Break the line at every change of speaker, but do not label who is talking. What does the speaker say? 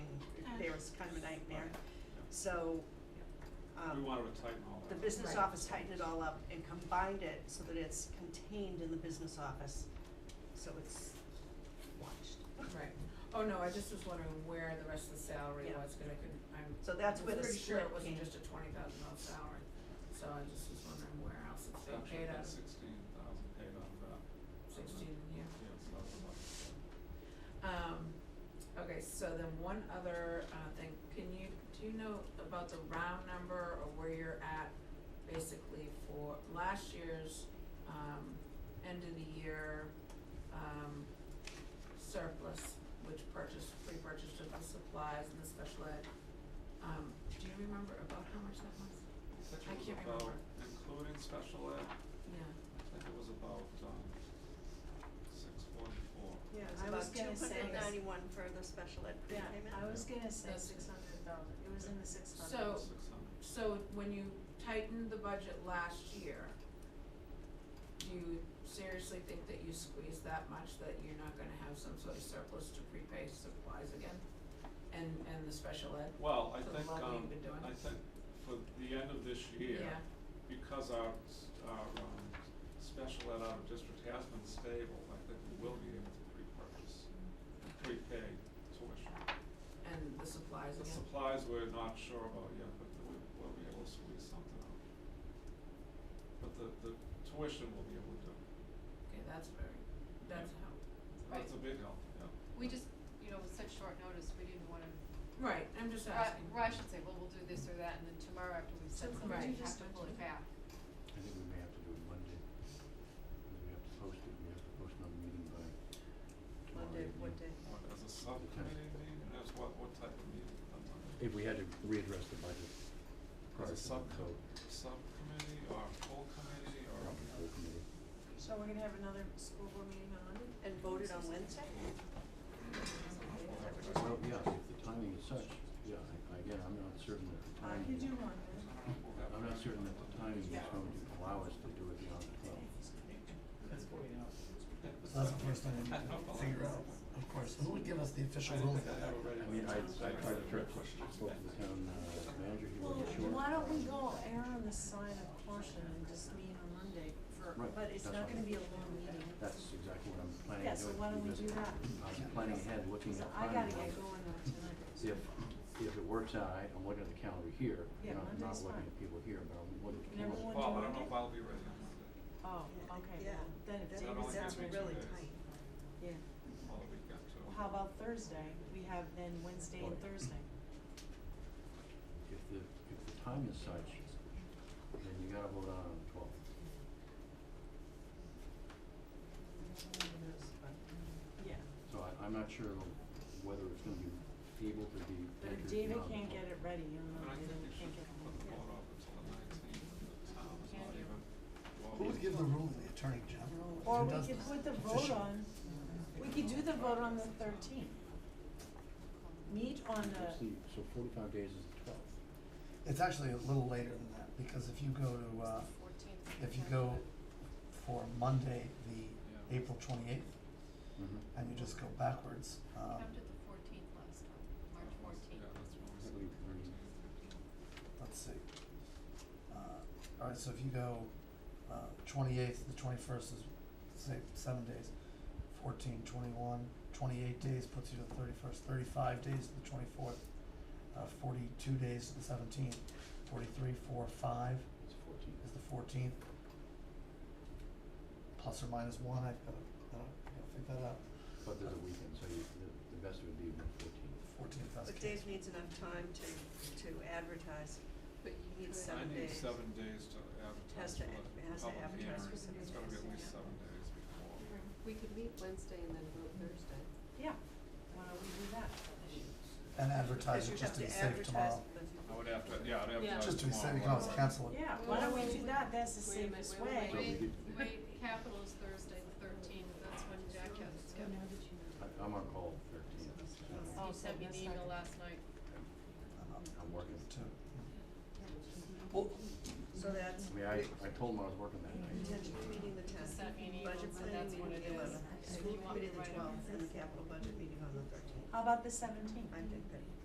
was kind of a nightmare. So,
We
um,
wanted to tighten all
the
that. up.
business
Right.
office tightened it all up and combined it so that it's contained in the business office, so it's watched.
Right, oh no, I just was wondering where the rest of the salary
Yeah.
was, cause I couldn't, I'm.
So that's
was
where the
Pretty sure
split
it wasn't
came.
just a twenty thousand dollar salary, so I just was wondering where else it's being
Actually,
paid out,
that's sixteen thousand paid on that.
sixteen in here.
Yeah, so that's about it.
Um, okay, so then one other, uh, thing, can you, do you know about the round number or where you're at basically for last year's, um, end of the year, um, surplus, which purchased, pre-purchased of the supplies and the special ed? Um, do you remember about how much that was?
I
I
think it
can't
was about,
remember.
including special ed,
Yeah,
I think it was about, um, six forty-four.
Yeah,
I was gonna
It was about two hundred
say-
and ninety-one for the special ed
Yeah,
prepayment.
I was gonna say
That's-
six hundred thousand, it was in the six hundred.
So-
Six hundred.
so when you tightened the budget last year, do you seriously think that you squeezed that much that you're not gonna have some sort of surplus to prepay supplies again? And, and the special ed?
Well, I
For the
think,
level
um,
you've been doing.
I think for the end of this year,
Yeah.
because our, s- our, um, special ed out of district has been stable, I think we will be able to pre-purchase, prepay tuition.
And the supplies
The
again?
supplies we're not sure about yet, but we, we'll be able to squeeze something out. But the, the tuition we'll be able to do,
Okay, that's very, that's how,
that's a big help, yeah.
We just, you know, with such short notice, we didn't wanna,
right, I'm just
or
asking.
I- or I should say, well, we'll do this or that, and then tomorrow after we've
So
said
could
something,
you
we have
just
to pull it
mention-
back.
I think we may have to do it Monday, because we have to post it, we have to post another meeting by tomorrow
Monday,
evening.
what day?
What, as a subcommittee meeting, as what, what type of meeting? I'm not-
If we had to readdress the budget
As
prior
a
to the
subco,
vote,
subcommittee or full committee or?
probably full committee.
So we're gonna have another school board meeting on Monday?
And voted on Wednesday?
Well, yeah, if the timing is such, yeah, I- I- again, I'm not certain that the
I
timing.
Uh, could do one,
I don't know if we'll have
I'm not certain that the timing is
Yeah.
going to allow us to do it beyond the twelve.
That's going out. That's the first thing we need to figure out, of course, who would give us the official ruling?
I have already.
I mean, I, I tried to trip, spoke to the town uh, manager, he
Well,
wasn't sure.
why don't we go err on the side of caution and just meet on Monday for,
Right,
but it's
that's
not
fine.
gonna be a long meeting.
That's exactly what I'm planning
Yeah,
on
so
doing,
why don't we
because
do that?
I'm planning ahead, looking
So
at
I
timing.
gotta get going though tonight.
if, if it works out, I, I'm looking at the calendar here,
Yeah,
you know, I'm not
Monday's
looking
fine.
at people here, but I'm looking at the
Number
calendar.
one,
Well, I
do
don't know
Monday?
if I'll be ready on Monday,
Oh, okay,
Yeah.
well, then it's,
That
That
only
sounds
gives me two
really
days.
tight.
yeah.
all the weekend too.
Well, how about Thursday? We have then Wednesday and Thursday.
If the, if the time is such, then you gotta vote on it on the twelfth.
Yeah.
So I, I'm not sure whether it's gonna be able to be
But
entered
if David
beyond the
can't get
12th.
it ready, you'll
But
know,
I think
they don't-
you should
can't get it
put the
ready.
vote off until the nineteenth, the town is not even. well,
Who would give the ruling, the attorney general? who
Or we
does
could
this?
put the vote
Official.
on, we could do the vote on the thirteenth. Meet on
Let's
the,
see, so forty-five days is the twelfth.
It's actually a little later than that, because if you go to, uh,
Fourteenth.
if you go for Monday, the
Yeah.
April twenty-eighth,
Mm-hmm.
and you just go backwards,
How
um,
did the fourteenth last time, March fourteenth?
Yeah, that's when we
I
said
believe
the
we-
13th.
let's see. Uh, alright, so if you go, uh, twenty-eighth, the twenty-first is, say, seven days, 14, 21, 28 days puts you to the thirty-first, thirty-five days to the twenty-fourth, uh, forty-two days to the seventeenth, forty-three, four, five
It's fourteen.
is the fourteenth. Plus or minus one, I've gotta, I don't, I gotta figure that out,
But there's a weekend, so you, the, the best would be the fourteenth.
fourteenth, that's
But
case.
Dave needs enough time to, to advertise.
But you
Need
could-
seven
I need
days.
seven days to advertise
Has
for
to
the
ad- has to
public
advertise
hearing.
for seven
It's gonna be
days,
at least
yeah.
seven days before.
We could meet Wednesday and then vote Thursday.
yeah, why don't we do that?
and advertise it just to be safe tomorrow.
I would have to, yeah, I'd advertise
Yeah.
tomorrow.
Just to be safe, you can always
right?
cancel it.
Yeah, why don't we do that, that's the
Wait a minute,
safest
wait a
way.
minute,
So we
Wait, wait, capital is Thursday, the thirteenth, that's when Jack has it scheduled.
I, I'm on call thirteenth.
Oh,
You sent me
so
the
that's
email
not-
last night.
I'm- I'm-
I'm working.
Two.
Well,
So that's.
I mean, I, I told him I was working that night.
Intention meeting the
Just
tenth,
sent me an email,
budget
so
planning
that's what
meeting
it
the
is.
eleventh,
If
school
you want me
committee
to
the
write it
twelfth,
down.
and the capital budget meeting on the thirteenth.
How about the seventeenth?
I'm good, Betty.